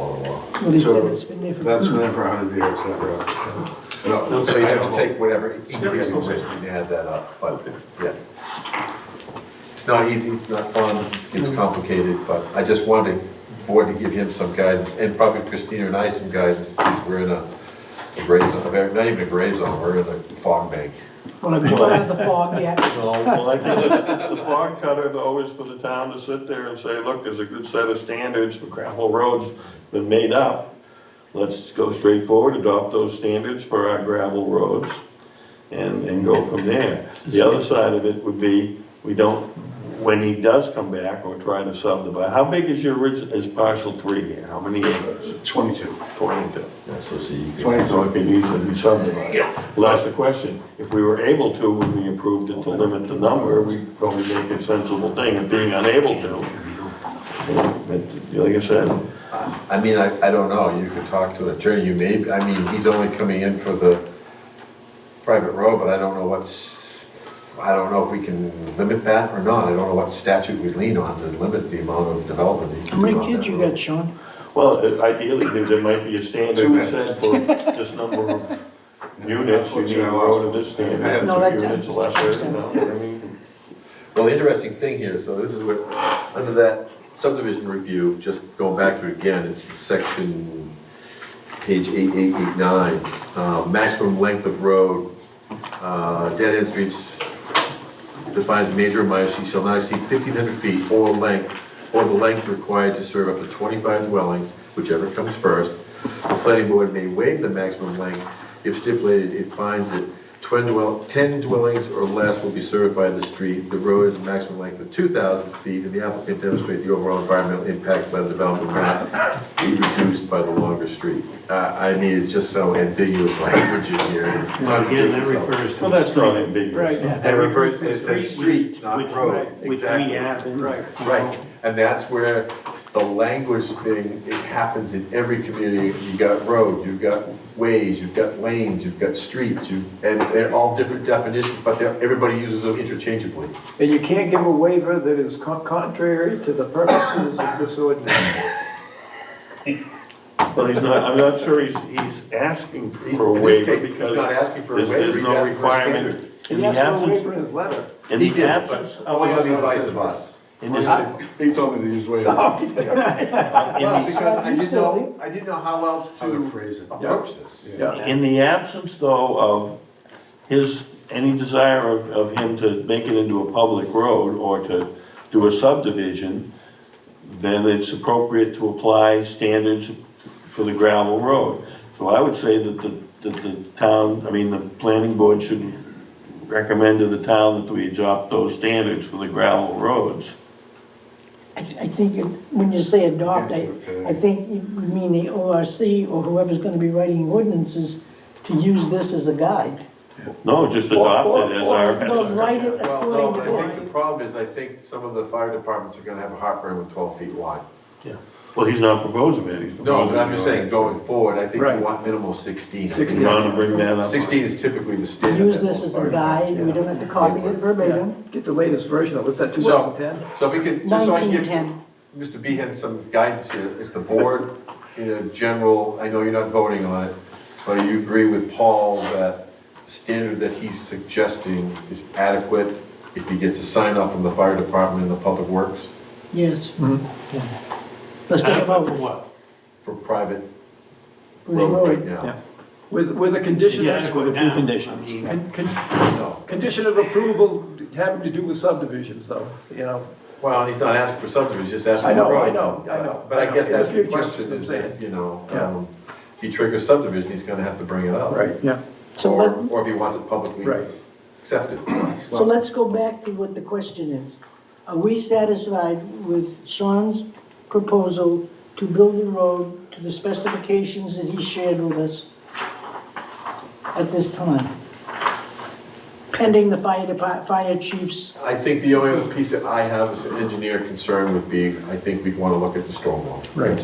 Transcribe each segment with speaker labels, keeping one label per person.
Speaker 1: Well, he said
Speaker 2: So
Speaker 1: it's been there for.
Speaker 2: that's been there for 100 years, that road. No,
Speaker 3: So you
Speaker 2: I
Speaker 3: have
Speaker 2: don't
Speaker 3: to
Speaker 2: know.
Speaker 3: take whatever increasing
Speaker 2: okay.
Speaker 3: risk to add that up, but, yeah. It's not easy, it's not fun, it's complicated, but I just wanted the board to give him some guidance, and probably Christina and I some guidance, because we're in a a gray zone, not even a gray zone, we're in a fog bank.
Speaker 1: One of the one of the fog, yeah.
Speaker 4: Well, I think The fog cutter, though, is for the town to sit there and say, look, there's a good set of standards for gravel roads been made up. Let's go straight forward, adopt those standards for our gravel roads and, and go from there. The other side of it would be, we don't, when he does come back or try to subdivide, how big is your orig, is parcel three here? How many acres?
Speaker 2: 22.
Speaker 4: Twenty-two.
Speaker 3: Yeah, So so you can,
Speaker 4: So it could easily be subdivided. Well, that's the question. If we were able to, when we approved it to limit the number, we probably make a sensible thing of being unable to. But, Like I said,
Speaker 3: I mean, I, I don't know, you could talk to an attorney, you may, I mean, he's only coming in for the private road, but I don't know what's, I don't know if we can limit that or not, I don't know what statute we lean on to limit the amount of development. that you
Speaker 1: How
Speaker 3: can do
Speaker 1: many
Speaker 3: on
Speaker 1: kids
Speaker 3: that
Speaker 1: you
Speaker 3: road.
Speaker 1: got, Sean?
Speaker 4: well, uh, ideally, there- there might be a standard
Speaker 2: Two.
Speaker 4: set for this number of units. You need a road of this standard,
Speaker 1: No, that-
Speaker 4: two units or less, you know what I mean?
Speaker 3: Well, the interesting thing here, so this is what, under that subdivision review, just going back to it again, it's section, page eight eight eight nine, uh, maximum length of road, uh, dead end streets defines major and minor, she shall not exceed fifteen hundred feet or length, or the length required to serve up to twenty-five dwellings, whichever comes first. The planning board may waive the maximum length if stipulated it finds that 10 dwell, ten dwellings or less will be served by the street. The road is a maximum length of two thousand feet, and the applicant demonstrate the overall environmental impact by the development will not be reduced by the longer street. Uh, I mean, it's just so ambiguous language in here.
Speaker 5: Well, again, that refers to.
Speaker 4: Well, that's
Speaker 5: street.
Speaker 4: not ambiguous.
Speaker 3: That refers, it says street,
Speaker 5: which-
Speaker 3: not road.
Speaker 5: Which we
Speaker 3: Exactly.
Speaker 5: have in.
Speaker 3: Right, and that's where the language thing, it happens in every community. You've got road, you've got ways, you've got lanes, you've got streets, you, and they're all different definitions, but they're, everybody uses them interchangeably.
Speaker 6: And you can't give a waiver that is con- contrary to the purposes of this ordinance.
Speaker 4: Well, he's not, I'm not sure he's, he's asking
Speaker 3: He's-
Speaker 4: for
Speaker 3: in
Speaker 4: a
Speaker 3: this
Speaker 4: waiver
Speaker 3: case, he's
Speaker 4: because.
Speaker 3: not asking for a
Speaker 4: there's-
Speaker 3: waiver,
Speaker 4: there's
Speaker 3: he's
Speaker 4: no
Speaker 3: asking for a
Speaker 4: requirement.
Speaker 3: standard.
Speaker 4: In
Speaker 6: He
Speaker 4: the
Speaker 6: asked for a
Speaker 4: absence,
Speaker 6: waiver in his letter.
Speaker 4: in
Speaker 3: He
Speaker 4: the
Speaker 3: did,
Speaker 4: absence.
Speaker 3: but
Speaker 4: of-
Speaker 3: only on the advice of us.
Speaker 4: In the-
Speaker 2: He told me to use way.
Speaker 4: in
Speaker 3: Well,
Speaker 4: the-
Speaker 3: because I didn't know, I didn't know how else
Speaker 2: How to
Speaker 3: to
Speaker 2: phrase it.
Speaker 3: approach this.
Speaker 4: In the absence, though, of his, any desire of, of him to make it into a public road or to do a subdivision, then it's appropriate to apply standards for the gravel road. So I would say that the, that the town, I mean, the planning board should recommend to the town that we adopt those standards for the gravel roads.
Speaker 1: I, th- I think you- when you say adopt, I, I think you mean the ORC or whoever's gonna be writing ordinances to use this as a guide.
Speaker 4: No, just adopt it as our, as
Speaker 1: Well,
Speaker 4: our-
Speaker 1: write it
Speaker 3: Well, no, but I
Speaker 1: according
Speaker 3: think the
Speaker 1: to.
Speaker 3: problem is, I think some of the fire departments are gonna have a heartburn with twelve feet wide.
Speaker 4: well, he's not proposing it, he's
Speaker 3: No,
Speaker 4: proposing.
Speaker 3: but I'm just saying, going forward, I think
Speaker 6: Right.
Speaker 3: we want minimal sixteen.
Speaker 4: You wanna bring that up?
Speaker 3: 16 is typically the standard.
Speaker 1: Use
Speaker 3: that most
Speaker 1: this as a
Speaker 3: fire
Speaker 1: guide, we
Speaker 3: departments
Speaker 1: don't have to copy it verbatim.
Speaker 6: Get the latest version of it, was that
Speaker 3: use. So-
Speaker 6: 2010?
Speaker 3: So if we could, just so I can give
Speaker 1: 1910.
Speaker 3: Mr. Behan some guidance here, is the board, in a general, I know you're not voting on it, but you agree with Paul that the standard that he's suggesting is adequate if he gets a sign off from the fire department and the public works
Speaker 1: Yes. Let's take a
Speaker 5: Adequate for
Speaker 1: vote.
Speaker 5: what?
Speaker 3: Mm-hmm. for private
Speaker 1: Bruce
Speaker 3: road right
Speaker 1: Road.
Speaker 3: now?
Speaker 6: With, with a condition,
Speaker 5: Yeah,
Speaker 6: of-
Speaker 5: adequate now. I mean,
Speaker 6: con- con-
Speaker 3: No.
Speaker 6: condition of approval having to do with subdivisions, though, you know?
Speaker 3: Well, he's not asking for subdivision, he's just asking
Speaker 6: I
Speaker 3: for
Speaker 6: know, I
Speaker 3: road.
Speaker 6: know, I know.
Speaker 3: But I guess
Speaker 6: In the
Speaker 3: that's the
Speaker 6: future,
Speaker 3: question,
Speaker 6: I'm
Speaker 3: is
Speaker 6: saying.
Speaker 3: that, you know,
Speaker 6: Yeah.
Speaker 3: um, if he triggers subdivision, he's gonna have to bring it up.
Speaker 6: yeah.
Speaker 1: So
Speaker 3: Or,
Speaker 1: let,
Speaker 3: or if he wants it publicly
Speaker 6: Right.
Speaker 3: accepted.
Speaker 1: so let's go back to what the question is. Are we satisfied with Sean's proposal to build the road to the specifications that he shared with us at this time? Pending the fire depart, fire chief's
Speaker 3: I think the only other piece that I have as an engineer concern would be, I think we'd wanna look at the storm wall. Right.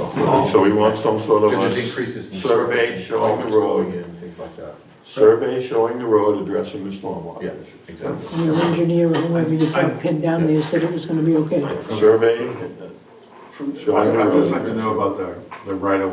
Speaker 4: So we want some sort of
Speaker 3: Because
Speaker 4: a
Speaker 3: there's increases in
Speaker 4: survey
Speaker 3: surface,
Speaker 4: showing
Speaker 3: showing
Speaker 4: the
Speaker 3: going
Speaker 4: road,
Speaker 3: in, things like that.
Speaker 4: survey showing the road addressing the stormwater.
Speaker 3: Yeah,
Speaker 4: issues.
Speaker 3: exactly.
Speaker 1: your engineer or whoever you pin down there said it was gonna be okay.
Speaker 4: Survey, uh,
Speaker 2: I'd just like to know about the, the right of